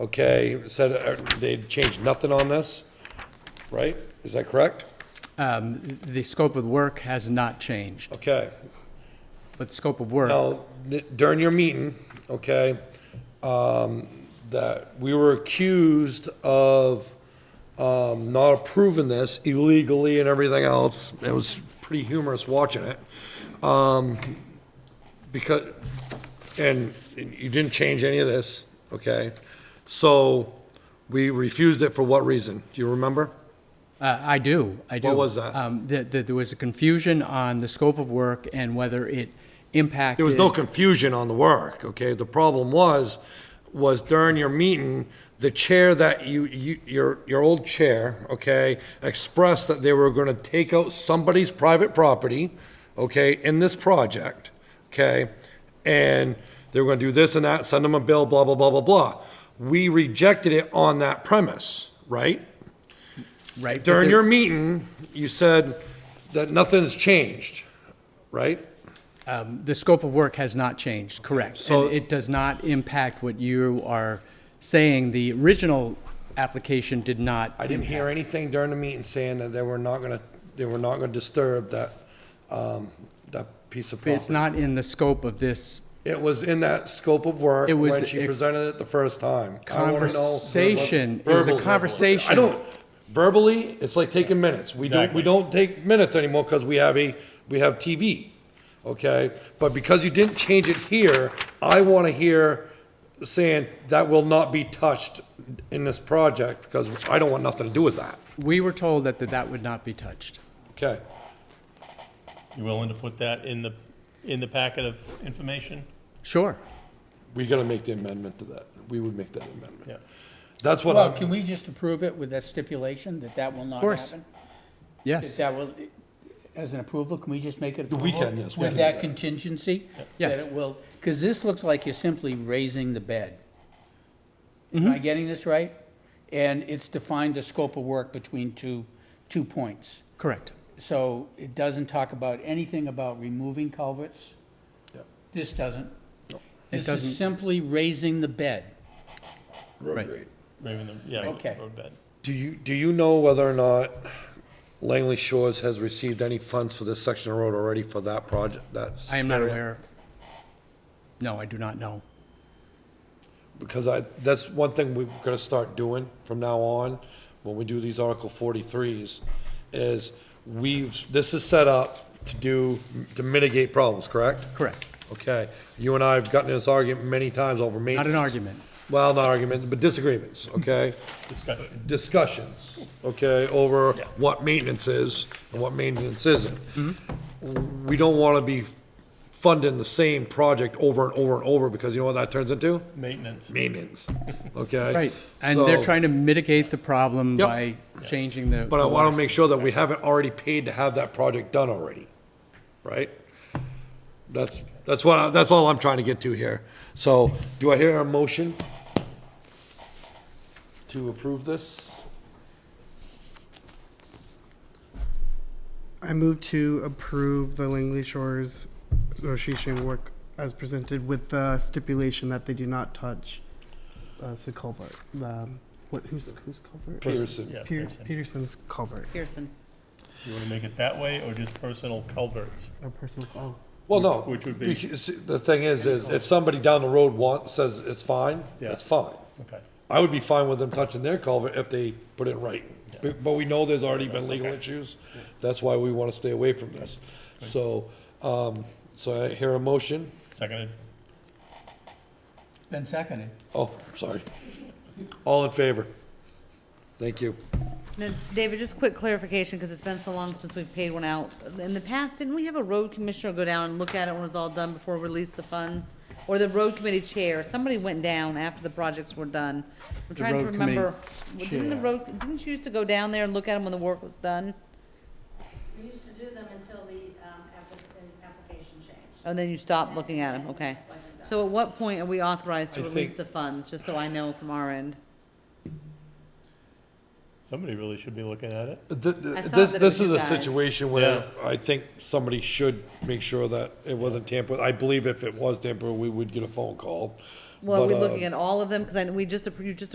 Okay, said uh, they changed nothing on this, right? Is that correct? Um, The scope of work has not changed, Okay. but the scope of work, Now, th- during your meeting, okay, um, that we were accused of um, not approving this illegally and everything else. It was pretty humorous watching it. Um, Because, and you didn't change any of this, okay? So we refused it for what reason? Do you remember? Uh, I do, I do. was that? Um, That that there was a confusion on the scope of work and whether it impacted. There was no confusion on the work, okay? The problem was, was during your meeting, the chair that you, you, your, your old chair, okay, expressed that they were gonna take out somebody's private property, okay, in this project, okay? And they were gonna do this and that, send them a bill, blah, blah, blah, blah, blah. We rejected it on that premise, right? right, but During there- your meeting, you said that nothing's changed, right? um, The scope of work has not changed, correct. so- And it does not impact what you are saying. The original application did not. I didn't hear anything during the meeting saying that they were not gonna, they were not gonna disturb that, um, that piece of It's property. not in the scope of this It was in that scope of work It was when she a- presented it the first time. I wanna know verbal- conversation. It was a verbally. conversation. I don't, verbally, it's like taking minutes. We don't, we don't take minutes anymore because we have a, we have TV, okay? But because you didn't change it here, I wanna hear saying that will not be touched in this project because I don't want nothing to do with that, We were told that that that would not be touched. okay? You willing to put that in the, in the packet of information? Sure. We gotta make the amendment to that. We would make that amendment. Yeah. That's what Well, I'm, can we just approve it with that stipulation that that will not course. happen? That Yes. that will, as an approval, can we just make it? We can, approval yes, we can With do that that. contingency? Yes. That it will, because this looks like you're simply raising the bed. Am Mm-hmm. I getting this right? And it's defined the scope of work between two, two points. Correct. So it doesn't talk about anything about removing culverts. Yep. This doesn't. This doesn't- is simply raising the bed. Right. Maybe in the, yeah. Okay. road bed. do you, do you know whether or not Langley Shores has received any funds for this section of road already for that project? That's. I am not aware. No, I do not know. Because I, that's one thing we're gonna start doing from now on, when we do these Article forty-threes, is we've, this is set up to do, to mitigate problems, correct? Correct. Okay, you and I have gotten in this argument many times over Not maintenance. an argument. Well, not argument, but disagreements, okay? Discussion. discussions, okay, over Yeah. what maintenance is and what maintenance isn't. Mm-hmm. We don't want to be funding the same project over and over and over, because you know what that turns into? Maintenance. Maintenance, okay? Right. And they're So- trying to mitigate the problem Yep. by changing the. But I want to make sure that we haven't already paid to have that project done already, right? That's, that's what, I- that's all I'm trying to get to here. So, do I hear a motion to approve this? I move to approve the Langley Shores Association work as presented with the stipulation that they do not touch uh, the culvert. The, what, who's, who's culvert? Peterson, Yeah, Peter, Pearson. Peterson's culvert. Pearson. You want to make it that way or just personal culverts? A personal, oh. Well, no. Which would be- because The thing is, is if somebody down the road wants, says it's fine, Yeah. it's fine. Okay. I would be fine with them touching their culvert if they put it right. But but we know there's already been legal issues. That's why we want to stay away from this. So, um, so I hear a motion. Seconded. Been seconded. Oh, sorry. All in favor? Thank you. Now, David, just quick clarification, because it's been so long since we've paid one out. In the past, didn't we have a road commissioner go down and look at it when it was all done before we released the funds? Or the road committee chair, somebody went down after the projects were done. I'm trying to road committee remember, didn't the road, didn't you used to go down there and look at them when the work was done? We used to do them until the um, applic- the application changed. And Oh, then you stopped looking at them, okay. So at what point are we authorized to I release think- the funds, just so I know from our end? Somebody really should be looking at it. Th- th- I thought This, that it this was is you a guys. situation where I think somebody should make sure that it wasn't tampered. with. I believe if it was tampered, we would get a phone call. Well, are But, we uh, looking at all of them? Because I, we just, appro- you just